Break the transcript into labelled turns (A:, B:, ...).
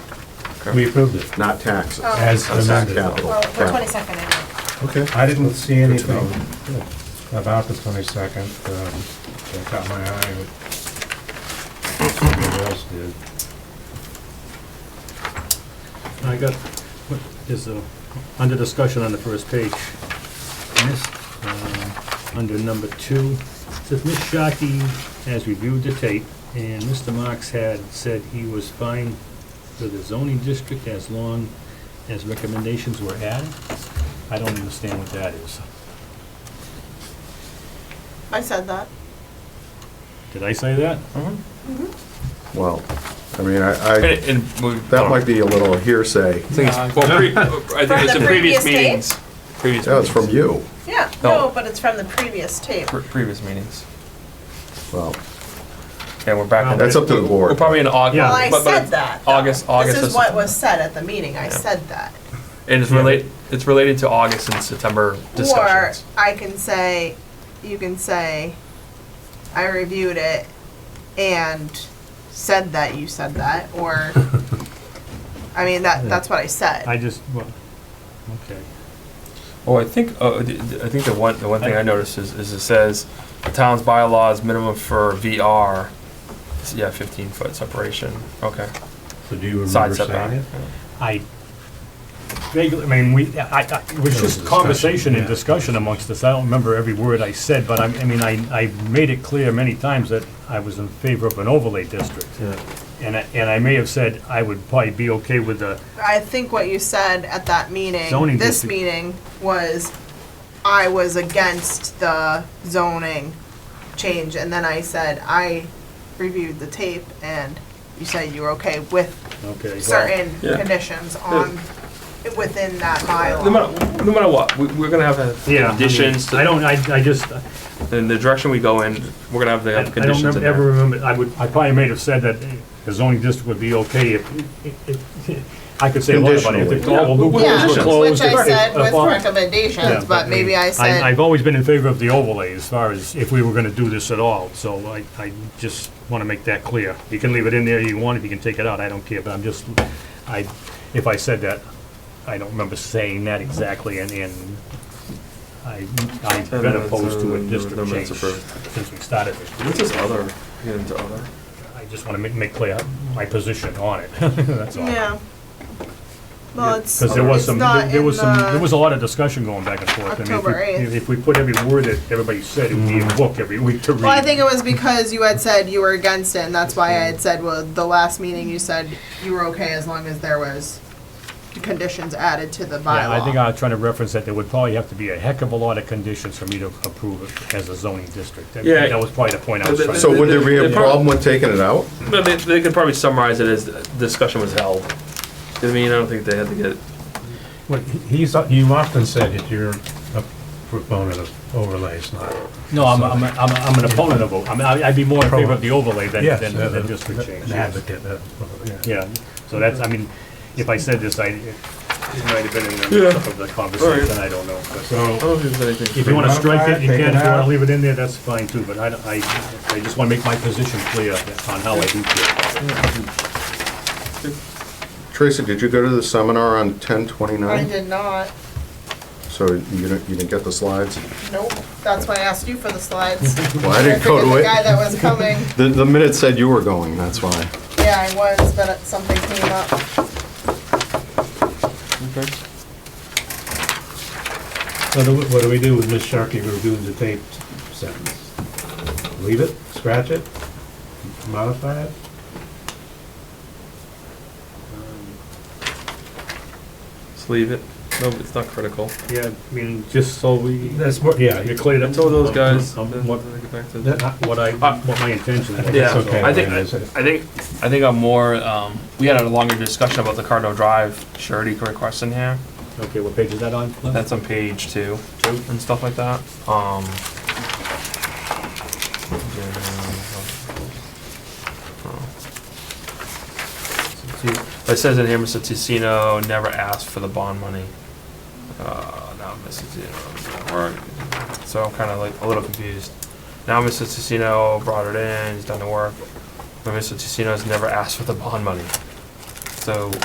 A: We approved it.
B: not taxes.
C: Oh.
A: As
B: That's not
A: amended.
B: capital.
C: Well, the twenty-second, I know.
B: Okay.
A: I didn't see
B: Good to know.
A: anything about the twenty-second, um, that caught my eye. Somebody else did.
D: I got, what is, uh, under discussion on the first page, Miss, uh, under number two, it says, Ms. Shockey has reviewed the tape, and Mr. Marks had said he was fine with the zoning district as long as recommendations were added. I don't understand what that is.
C: I said that.
D: Did I say that?
B: Well, I mean, I, I,
E: And- and we-
B: that might be a little hearsay.
E: I think
A: Uh,
E: it's- well, pre- I think
C: From
E: it's
C: the
E: in previous
C: previous tape?
E: meetings. Previous
B: That was from
E: meetings.
B: you.
C: Yeah,
E: No.
C: no, but it's from the previous tape.
E: Pre- Previous meetings.
B: Well,
E: And we're
A: Oh,
E: back. in-
B: That's up to the board.
E: We're probably in August.
D: Yeah.
C: Well, I
E: but- but
C: said that. though.
E: August, August.
C: This is
E: or
C: what
E: September.
C: was said at the meeting, I
E: Yeah.
C: said that.
E: And it's related, it's related to August and September
C: Or
E: discussions.
C: I can say, you can say, I reviewed it and said that you said that, or, I mean, that, that's what I said.
D: I just, well, okay.
E: Well, I think, uh, d- d- I think the one, the one thing I noticed is, is it says, the town's bylaws minimum for VR, is, yeah, fifteen foot separation, okay.
A: So do you
E: Side
A: remember
E: setback.
A: saying it?
D: I vaguely, I mean, we, I, I, it was
A: There was
D: just
A: discussion,
D: conversation and
A: yeah.
D: discussion amongst us. I don't remember every word I said, but I, I mean, I, I made it clear many times that I was in favor of an overlay district. And I, and I may have said I would probably be okay with the,
C: I think what you said at that meeting,
D: Zoning
C: this
D: district.
C: meeting, was I was against the zoning change, and then I said, I reviewed the tape, and you said you were okay with
D: okay. well,
C: certain
E: Yeah.
C: conditions on, within that
E: No
C: bylaw.
E: matter, no matter what, we, we're gonna have a
D: Yeah. I mean,
E: conditions,
D: I
E: to-
D: don't, I, I just, I
E: in the direction we go in, we're gonna have the
D: I
E: have
D: don't
E: conditions
D: remember,
E: in there.
D: ever remember, I would, I probably may have said that the zoning district would be okay if, if- if, I could say a lot about it. If
B: Conditionally.
D: all the
C: Yeah,
D: loopholes were
B: Conditions.
D: closed.
C: Which I
D: if-
C: said
D: if
C: with
D: all- Yeah,
C: recommendations, but maybe I
D: I've
C: said,
D: always been in favor of the overlay as far as if we were gonna do this at all, so I, I just wanna make that clear. You can leave it in there if you want, if you can take it out, I don't care, but I'm just, I, if I said that, I don't remember saying that exactly, and, and I, I've been opposed to a district change since we started this.
E: What's this other, get into other?
D: I just wanna make, make clear my position on it, that's all.
C: yeah. Well, it's,
D: Because there was
C: it's
D: some,
C: not
D: there
C: in
D: was some, there was
C: the,
D: a lot of discussion going back and forth. I mean, if we-
C: October 8th.
D: If we put every word that everybody said, it would be a book every week to read.
C: well, I think it was because you had said you were against it, and that's why I had said, well, the last meeting you said you were okay as long as there was conditions added to the
D: Yeah, I think
C: bylaw.
D: I'm trying to reference that there would probably have to be a heck of a lot of conditions for me to approve it as a zoning district. That-
E: Yeah.
D: That was probably the point I was
E: But
D: trying
B: So
D: to.
B: would there be a problem with taking it out?
E: No, they, they could probably summarize it as the discussion was held. I mean, I don't think they had to get,
A: Well, he- he's, you often said that you're a proponent of overlays, not.
D: No, I'm, I'm, I'm I'm an opponent of, o- I mean, I- I'd be more in favor of the overlay than,
A: Yes,
D: than
A: uh,
D: than district change.
A: An
D: yes.
A: advocate uh, of overlay.
D: Yeah, so that's, I mean, if I said this, I, it it might have been in the mix of the conversation, I don't know. but-
A: So,
E: I don't think there's anything.
D: If you wanna
A: Take it
D: strike
A: out,
D: it, you
A: take
D: can,
A: it
D: if you wanna
A: out.
D: leave it in there, that's fine too, but I, don't- I, I just wanna make my position clear on how I do feel.
B: Tracy, did you go to the seminar on ten twenty-nine?
C: did not,
B: So you didn't, you didn't get the slides?
C: nope, that's why I asked you for the slides.
B: Well, I didn't go to it.
C: that was coming,
B: The, the minute said you were going, that's why.
C: yeah, I was, but something came up.
A: What do, we- what do we do with Ms. Sharkey reviewing the tape sentence? Leave it, scratch it, modify it?
E: Just leave it. No, it's not critical.
D: Yeah, I mean, just so we,
A: That's more, yeah,
D: you
A: you-
D: cleared
E: I
D: up.
E: told those guys.
D: Um,
E: then
D: What,
E: they get back to the-
A: that-
D: what I, what my intention was.
E: Yeah,
A: That's okay,
E: I think, I
A: I mean, it's-
E: think, I think I'm more, um, we had a longer discussion about the Cardinal Drive surety request in here.
D: Okay, what page is that on? Lynn?
E: That's on page two and stuff like that. Um. oh. It says in here, Mr. Tissino never asked for the bond money. Uh, now Mr. Tissino, so I'm kinda like a little confused. Now Mr. Tissino brought it in, he's done the work, but Mr. Tissino's never asked for the bond money. So